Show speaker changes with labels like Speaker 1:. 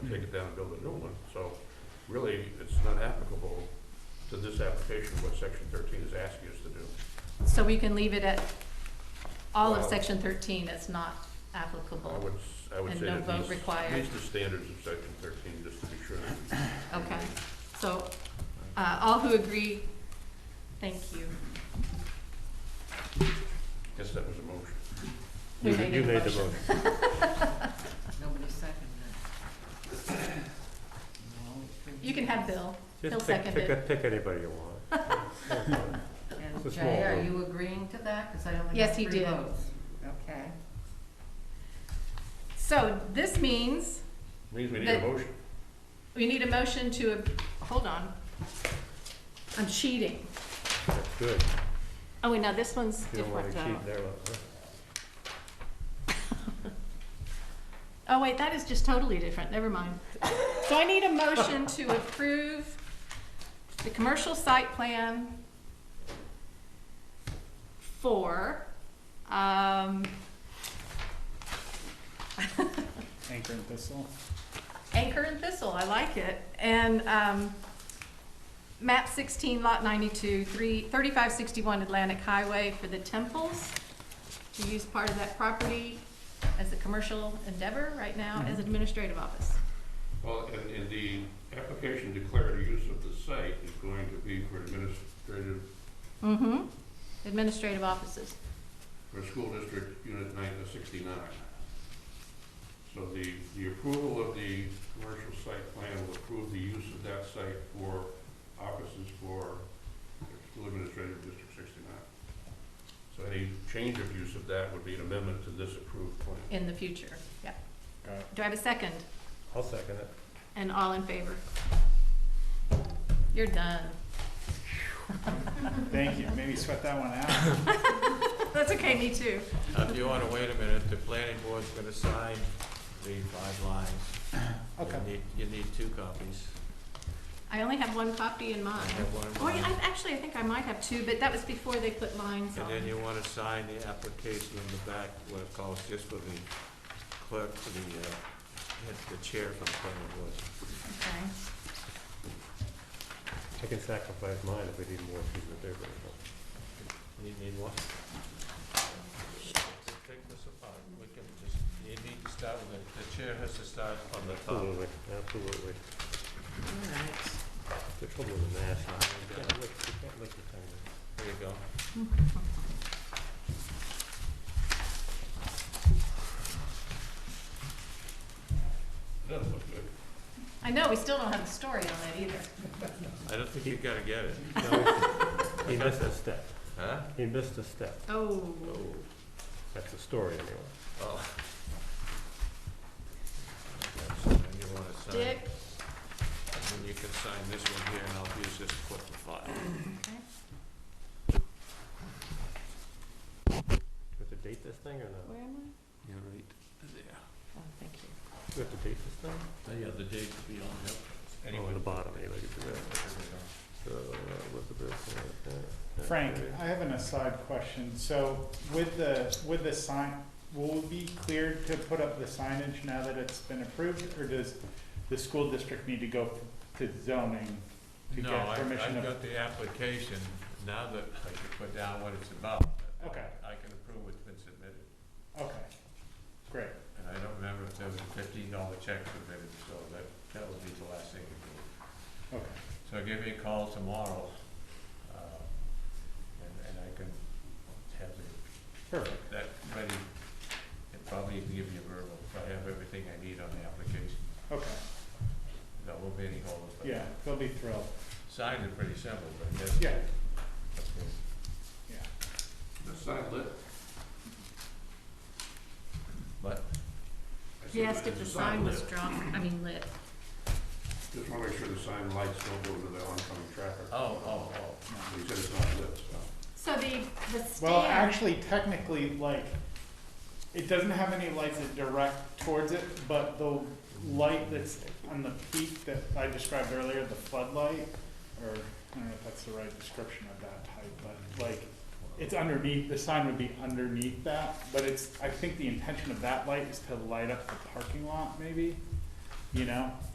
Speaker 1: take it down and build a new one, so really, it's not applicable to this application, what section thirteen is asking us to do.
Speaker 2: So we can leave it at, all of
Speaker 1: Well-
Speaker 2: section thirteen is not
Speaker 1: I
Speaker 2: applicable.
Speaker 1: would, s- I would
Speaker 2: And
Speaker 1: say
Speaker 2: no
Speaker 1: that
Speaker 2: vote
Speaker 1: these,
Speaker 2: required.
Speaker 1: these are the standards of section thirteen, just to be sure. that
Speaker 2: Okay, so, uh, all who agree, thank you.
Speaker 1: we- Guess that was a motion.
Speaker 2: Who
Speaker 3: You- you made the
Speaker 4: Nobody seconded it.
Speaker 2: You can have Bill. He'll
Speaker 3: Just pick,
Speaker 2: second
Speaker 3: pick,
Speaker 2: it.
Speaker 3: a- pick anybody you want. It's a
Speaker 4: And
Speaker 3: small
Speaker 4: Jay, are
Speaker 3: room.
Speaker 4: you agreeing to that? Because I only
Speaker 2: Yes,
Speaker 4: got
Speaker 2: he
Speaker 4: three
Speaker 2: did.
Speaker 4: votes. Okay.
Speaker 2: So this means
Speaker 1: Means we need a
Speaker 2: That-
Speaker 1: motion.
Speaker 2: we need a motion to, hold on. I'm cheating.
Speaker 3: That's good.
Speaker 2: Oh, wait, now this one's
Speaker 3: You don't wanna cheat
Speaker 2: different.
Speaker 3: there. huh?
Speaker 2: Oh, wait, that is just totally different, never mind. So I need a motion to approve the commercial site plan for, um,
Speaker 5: Anchor and Thistle.
Speaker 2: Anchor and Thistle, I like it, and, um, map sixteen, lot ninety-two, three, thirty-five sixty-one Atlantic Highway for the temples to use part of that property as a commercial endeavor right now as administrative office.
Speaker 1: Well, and, and the application declared use of the site is going to be for administrative,
Speaker 2: Mm-hmm. Administrative offices.
Speaker 1: for school district unit nine uh, sixty-nine. So the, the approval of the commercial site plan will approve the use of that site for offices for school administrative district sixty-nine. So any change of use of that would be an amendment to this approved plan.
Speaker 2: in the future, yeah.
Speaker 5: Got it.
Speaker 2: Do I have a second?
Speaker 3: I'll second it.
Speaker 2: And all in favor? You're done.
Speaker 5: Thank you. Maybe sweat that one out.
Speaker 2: That's okay, me too.
Speaker 6: Now, If you wanna wait a minute, the planning board's gonna sign the five lines. You
Speaker 5: Okay.
Speaker 6: need- You need two copies.
Speaker 2: I only have one copy in
Speaker 6: I
Speaker 2: mine.
Speaker 6: have one of
Speaker 2: Or,
Speaker 6: mine.
Speaker 2: Ah. Oh, I, actually, I think I might have two, but that was before they put lines
Speaker 6: And
Speaker 2: on.
Speaker 6: then you wanna sign the application in the back, what it calls, just for the clerk, for the, uh, head- the chair for the planning board.
Speaker 2: Okay.
Speaker 3: I can sacrifice mine if we need more people to do it.
Speaker 6: You need one? Take this apart, we can just, you need to start with, it. the chair has to start on the top.
Speaker 3: Absolutely, absolutely.
Speaker 4: All right.
Speaker 3: The trouble with the mask,
Speaker 6: Uh,
Speaker 3: you
Speaker 6: you got
Speaker 3: can't
Speaker 6: it.
Speaker 3: lick, you can't lick your tongue.
Speaker 6: There you go.
Speaker 1: That look good.
Speaker 2: I know, we still don't have a story on that either.
Speaker 6: I don't think you gotta get it,
Speaker 3: No, He missed a step.
Speaker 6: huh?
Speaker 3: He missed a step.
Speaker 2: Oh,
Speaker 6: Oh.
Speaker 3: That's the story anyway.
Speaker 6: Oh. Okay, so then you wanna sign-
Speaker 2: Dick,
Speaker 6: and Then you can sign this one here, and I'll use this to put the file.
Speaker 2: okay.
Speaker 3: Do we have to date this thing or not?
Speaker 2: where am
Speaker 6: You're right. There.
Speaker 2: I? Oh, thank you.
Speaker 3: Do we have to date this thing?
Speaker 1: Oh,
Speaker 6: Yeah, the date to be on, yep.
Speaker 3: Oh,
Speaker 6: Anyway.
Speaker 3: on the bottom, anyway, you can do that.
Speaker 6: there we go.
Speaker 3: So, uh, Elizabeth, uh, uh, uh,
Speaker 5: Frank,
Speaker 3: uh,
Speaker 5: I have an aside question. So with the, with the sign, will it be cleared to put up the signage now that it's been approved? Or does the school district need to go to zoning to
Speaker 6: No,
Speaker 5: get
Speaker 6: I,
Speaker 5: permission? of-
Speaker 6: I've got the application, now that I can put down what it's about.
Speaker 5: Okay.
Speaker 6: I can approve what's been submitted,
Speaker 5: Okay, great.
Speaker 6: and I don't remember if there was a fifteen dollar check submitted, so that, that would be the last thing to do.
Speaker 5: Okay,
Speaker 6: So give me a call tomorrow, uh, and, and I can have the-
Speaker 5: perfect.
Speaker 6: that ready, and probably even give you a verbal, if I have everything I need on the application.
Speaker 5: Okay,
Speaker 6: There won't be any holes, but
Speaker 5: yeah, they'll be thrilled.
Speaker 6: signs are pretty simple, but that's.
Speaker 5: Yeah,
Speaker 6: Okay.
Speaker 5: yeah.
Speaker 1: The side lit.
Speaker 6: But,
Speaker 1: I said
Speaker 2: He
Speaker 1: it's
Speaker 2: asked if the
Speaker 1: a
Speaker 2: sign was
Speaker 1: lit.
Speaker 2: drawn, I mean lit.
Speaker 1: Just wanna make sure the sign lights don't go into the oncoming traffic.
Speaker 6: oh, oh, oh.
Speaker 1: He said it's not lit, so.
Speaker 2: So the, the stand.
Speaker 5: Well, actually, technically, like, it doesn't have any lights that direct towards it, but the light that's on the peak that I described earlier, the floodlight, or, I don't know if that's the right description of that type, but like, it's underneath, the sign would be underneath that, but it's, I think the intention of that light is to light up the parking lot, maybe? you know?